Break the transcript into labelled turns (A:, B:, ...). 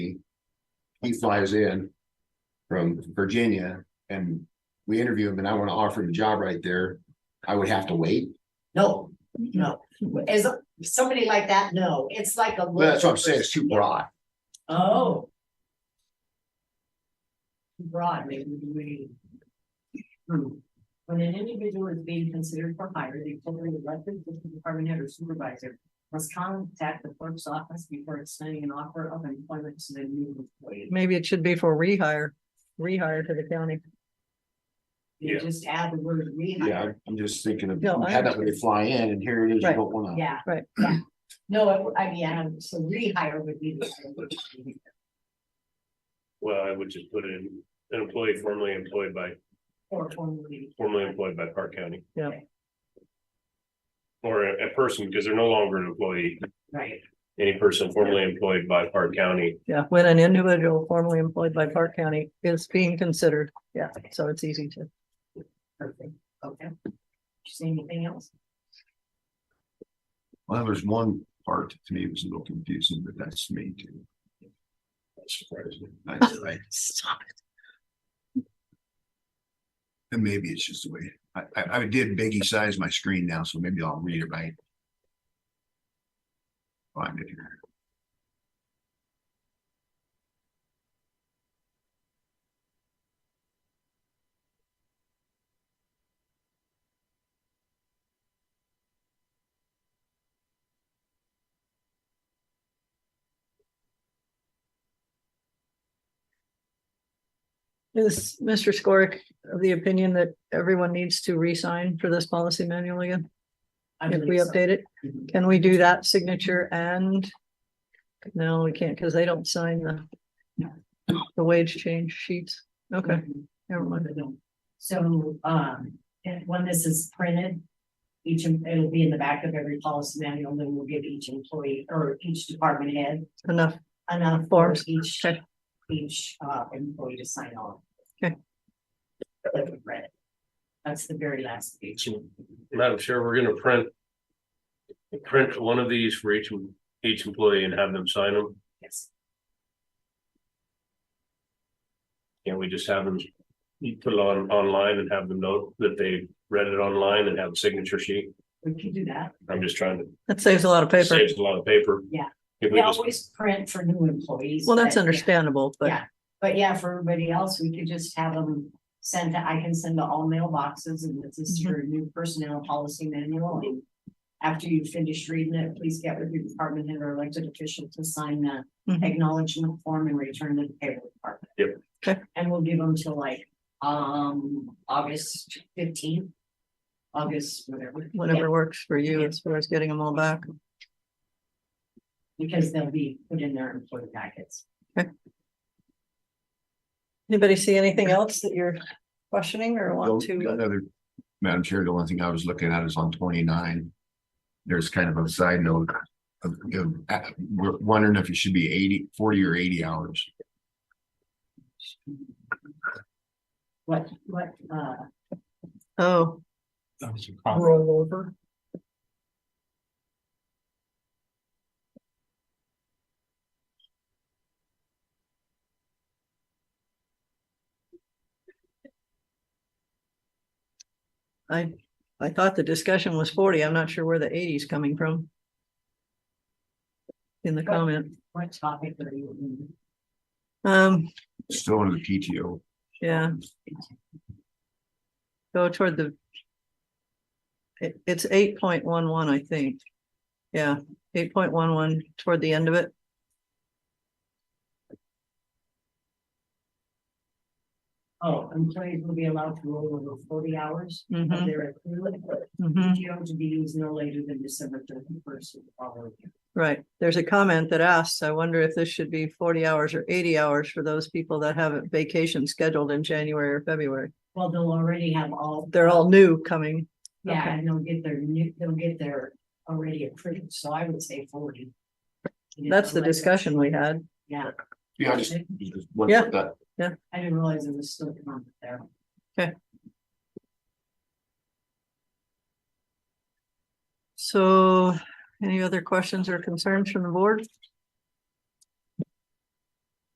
A: he flies in from Virginia and we interview him and I want to offer him a job right there, I would have to wait.
B: No, no, as somebody like that, no, it's like a.
A: Well, that's what I'm saying, it's too broad.
B: Oh. Broad, maybe we. Hmm. When an individual is being considered for hire, the appropriate elected district department head or supervisor must contact the clerk's office before extending an offer of employment to the new employee.
C: Maybe it should be for rehire, rehire to the county.
B: You
D: Yeah.
B: just add the word
A: Yeah,
B: rehire.
A: I'm- I'm just thinking of,
C: No,
A: you
C: I
A: had that when they fly in and here it is, you
C: Right.
A: don't want to.
B: Yeah.
C: Right.
B: yeah. No, I I mean, I don't- so rehire would be. the-
D: Well, I would just put in an employee formerly employed by,
B: Or formally.
D: formerly employed by Park County.
C: Yeah.
D: Or a, a person, because they're no longer an employee,
B: Right.
D: any person formerly employed by Park County.
C: Yeah, when an individual formerly employed by Park County is being considered. Yeah, so it's easy to.
B: Perfect, okay. Did you see anything else?
A: Well, there's one part to me was a little confusing, but that's me too. That's right.
C: Stop.
A: And maybe it's just the way, I, I, I did biggie size my screen now, so maybe I'll read it right. Find it here.
C: Is Mr. Skorick of the opinion that everyone needs to re-sign for this policy manual again?
B: I
C: If
B: believe
C: we
B: so.
C: update it,
B: Mhm.
C: can we do that signature and? No, we can't because they don't sign the. The wage change sheets. Okay,
B: Mhm.
C: never mind.
B: So, um, and when this is printed, each, em- it'll be in the back of every policy manual, then we'll give each employee or each department head
C: Enough.
B: enough for
C: Forms,
B: each,
C: okay.
B: each, uh, employee to sign on.
C: Okay.
B: That we've read. That's the very last page.
D: Madam Chair, we're gonna print. Print one of these for each, each employee and have them sign them.
B: Yes.
D: Can't we just have them, you put it on, online and have them know that they read it online and have a signature sheet?
B: We can do that.
D: I'm just trying to,
C: That saves a lot of paper.
D: saves a lot of paper.
B: Yeah.
D: If
B: We
D: we just,
B: always print for new employees.
C: Well, that's
B: but-
C: understandable, but.
B: Yeah. But yeah, for everybody else, we could just have them sent, I can send to all mailboxes and this
C: Mm-hmm.
B: is your new personnel policy manual. And After you finish reading it, please get with your department head or elected official to sign the
C: Mhm.
B: acknowledgement form and return to the payroll department.
D: Yep.
C: Okay.
B: And we'll give them till like, um, August fifteenth. August, whatever.
C: whatever works for you as far as getting them all back.
B: Because they'll be put in their employee packets.
C: Anybody see anything else that you're questioning or want to?
A: Another, Madam Chair, the one thing I was looking at is on twenty-nine. There's kind of a side note of, of, uh, we're wondering if it should be 80, 40 or eighty hours.
B: What, what, uh,
C: Oh, roll over. I, I thought the discussion was forty. I'm not sure where the eighty's coming from. In the comment,
B: what topic are you? in?
C: um,
A: Still under the PTO.
C: yeah. Go toward the. It, it's eight point one one, I think. Yeah, eight point one one toward the end of it.
B: Oh, employees will be allowed to roll over forty hours of
C: Mhm,
B: their accrued
C: mhm.
B: PTO to be used no later than December thirty first of the following year.
C: Right, there's a comment that asks, I wonder if this should be forty hours or eighty hours for those people that have a vacation scheduled in January or February.
B: Well, they'll already have all.
C: They're all new coming.
B: Yeah,
C: okay.
B: and they'll get their new, they'll get their already accrued, so I would say forty. You know,
C: That's the
B: like-
C: discussion we had.
B: Yeah.
A: Yeah, I just, just wondered
C: Yeah.
A: that.
B: I didn't realize there was still a comment there.
C: So any other questions or concerns from the board?